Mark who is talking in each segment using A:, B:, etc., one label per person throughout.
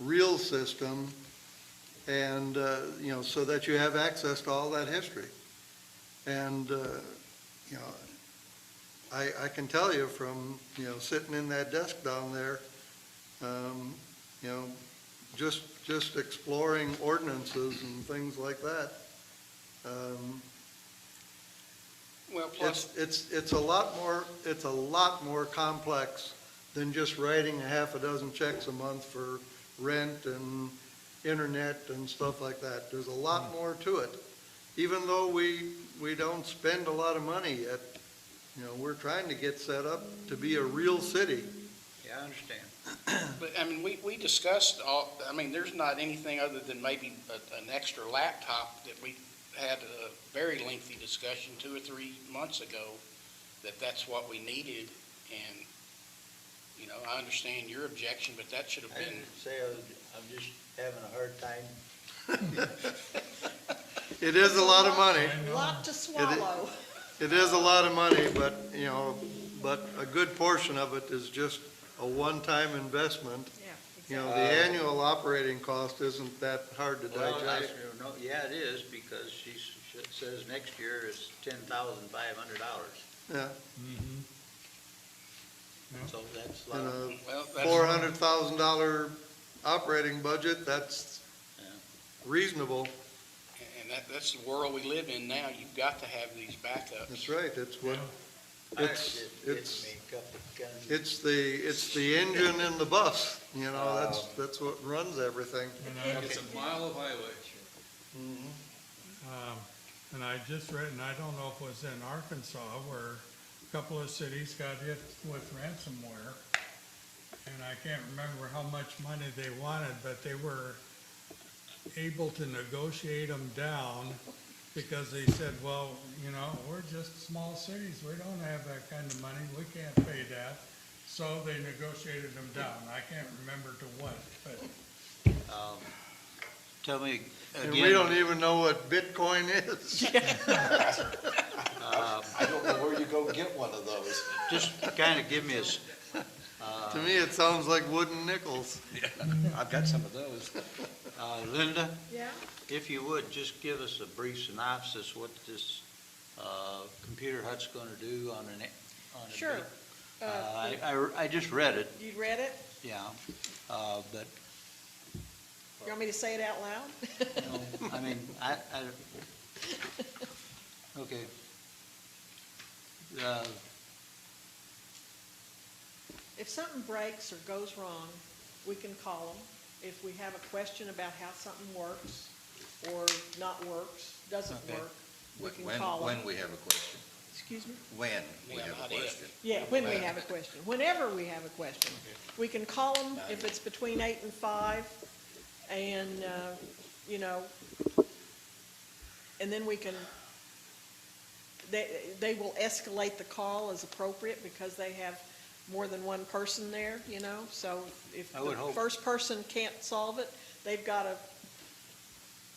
A: real system, and, uh, you know, so that you have access to all that history. And, uh, you know, I, I can tell you from, you know, sitting in that desk down there, um, you know, just, just exploring ordinances and things like that. um,
B: Well, plus,
A: It's, it's, it's a lot more, it's a lot more complex than just writing a half a dozen checks a month for rent and internet and stuff like that. There's a lot more to it. Even though we, we don't spend a lot of money yet, you know, we're trying to get set up to be a real city.
C: Yeah, I understand.
B: but, I mean, we, we discussed all, I mean, there's not anything other than maybe a- an extra laptop that we had a very lengthy discussion two or three months ago, that that's what we needed, and, you know, I understand your objection, but that should have
C: I
B: been,
C: didn't say I was, I'm just having a hard time.
A: It is a lot of money.
D: Lot to swallow.
A: It is a lot of money, but, you know, but a good portion of it is just a one-time investment. You know, the
C: Uh,
A: annual operating cost isn't that hard to
C: Well, I-
A: digest.
C: no, Yeah, it is, because she s- sh- says next year it's ten thousand five hundred dollars.
A: Yeah,
E: Mm-hmm.
C: So that's a
A: in
C: lot. of-
A: a
B: well,
A: four
B: that's,
A: hundred thousand dollar operating budget, that's
C: Yeah.
A: reasonable.
B: and that, that's the world we live in now, you've got to have these backups.
A: That's right, it's what,
C: I
A: uh, it's-
C: didn't- didn't
A: it's-
C: make up the gun.
A: it's the, it's the engine in the bus, you know, that's, that's what runs everything.
F: It's a mile of highway.
C: Mm-hmm.
E: Um, And I just read, and I don't know if it was in Arkansas, where a couple of cities got hit with ransomware. And I can't remember how much money they wanted, but they were able to negotiate them down because they said, well, you know, we're just small cities. We don't have that kind of money. We can't pay that. So they negotiated them down. I can't remember to what, but
C: Um, Tell me
A: And we don't
C: again,
A: even know what Bitcoin is.
G: I don't know where you go get one of those.
C: just kind of give me a, s-
A: To me, it sounds like wooden nickels.
G: I've got some of those.
C: uh, Linda,
D: Yeah,
C: if you would, just give us a brief synopsis what this uh, computer hut's going to do on an, a- on a.
D: sure.
C: big-
D: Uh,
C: Uh, I, I- I just read it,
D: You read it?
C: yeah, uh, but
D: You want me to say it out loud?
C: No, I mean, I, I, okay. Uh,
D: If something breaks or goes wrong, we can call them. If we have a question about how something works or not works, doesn't
C: Okay.
D: work, we
G: When,
D: can call them.
G: when we have a question,
D: Excuse me?
G: when we
B: Yeah,
G: have a
B: not if.
G: question.
D: Yeah, when
C: Uh,
D: we have a question, whenever we have a question. We can call them if it's between eight and five, and, uh, you know, and then we can, they, they will escalate the call as appropriate because they have more than one person there, you know? So if
C: I would
D: the
C: hope.
D: first person can't solve it, they've got a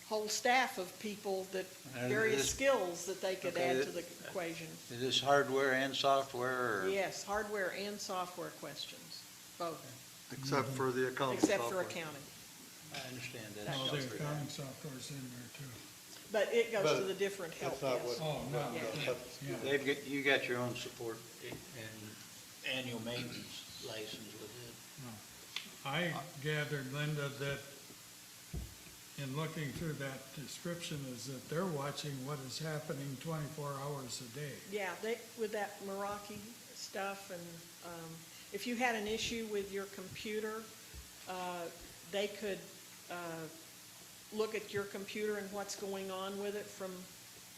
D: whole staff of people that,
C: And
D: various
C: this-
D: skills that they could
C: Okay,
D: add
C: it-
D: to the equation.
C: Is this hardware and software, or?
D: Yes, hardware and software questions, both,
A: Except
C: Mm-hmm.
A: for the
C: Oh,
A: accounting
D: except for
A: software.
D: accounting.
C: I understand that.
E: all the accounting software's in there too.
D: But it goes to
A: But
D: the different help
A: that's not
D: desk.
E: Oh, no.
D: Yeah.
E: yeah.
C: They've got, you got your own support and annual maintenance license with it.
E: I gathered, Linda, that in looking through that description is that they're watching what is happening twenty-four hours a day.
D: Yeah, they, with that Meraki stuff and, um, if you had an issue with your computer, uh, they could, uh, look at your computer and what's going on with it from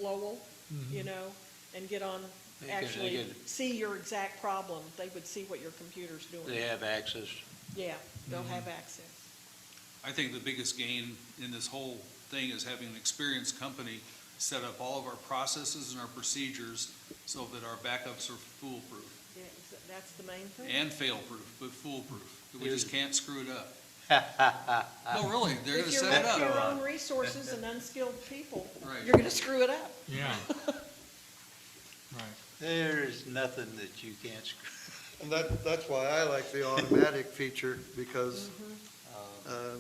D: Lowell,
A: Mm-hmm.
D: you know, and get on,
C: They could- they
D: actually
C: could-
D: see your exact problem. They would see what your computer's
C: They
D: doing.
C: have access.
D: Yeah, they'll
A: Mm-hmm.
D: have access.
F: I think the biggest gain in this whole thing is having an experienced company set up all of our processes and our procedures so that our backups are foolproof
D: Yeah, exa- that's the main thing.
F: and fail-proof, but foolproof. We just can't screw it up. No, really, they're gonna
D: If you
F: set it
D: left
F: up.
D: your own resources and unskilled people,
F: Right.
D: you're gonna screw it up.
E: Yeah. Right.
C: There is nothing that you can't screw.
A: And that, that's why I like the automatic feature, because, uh,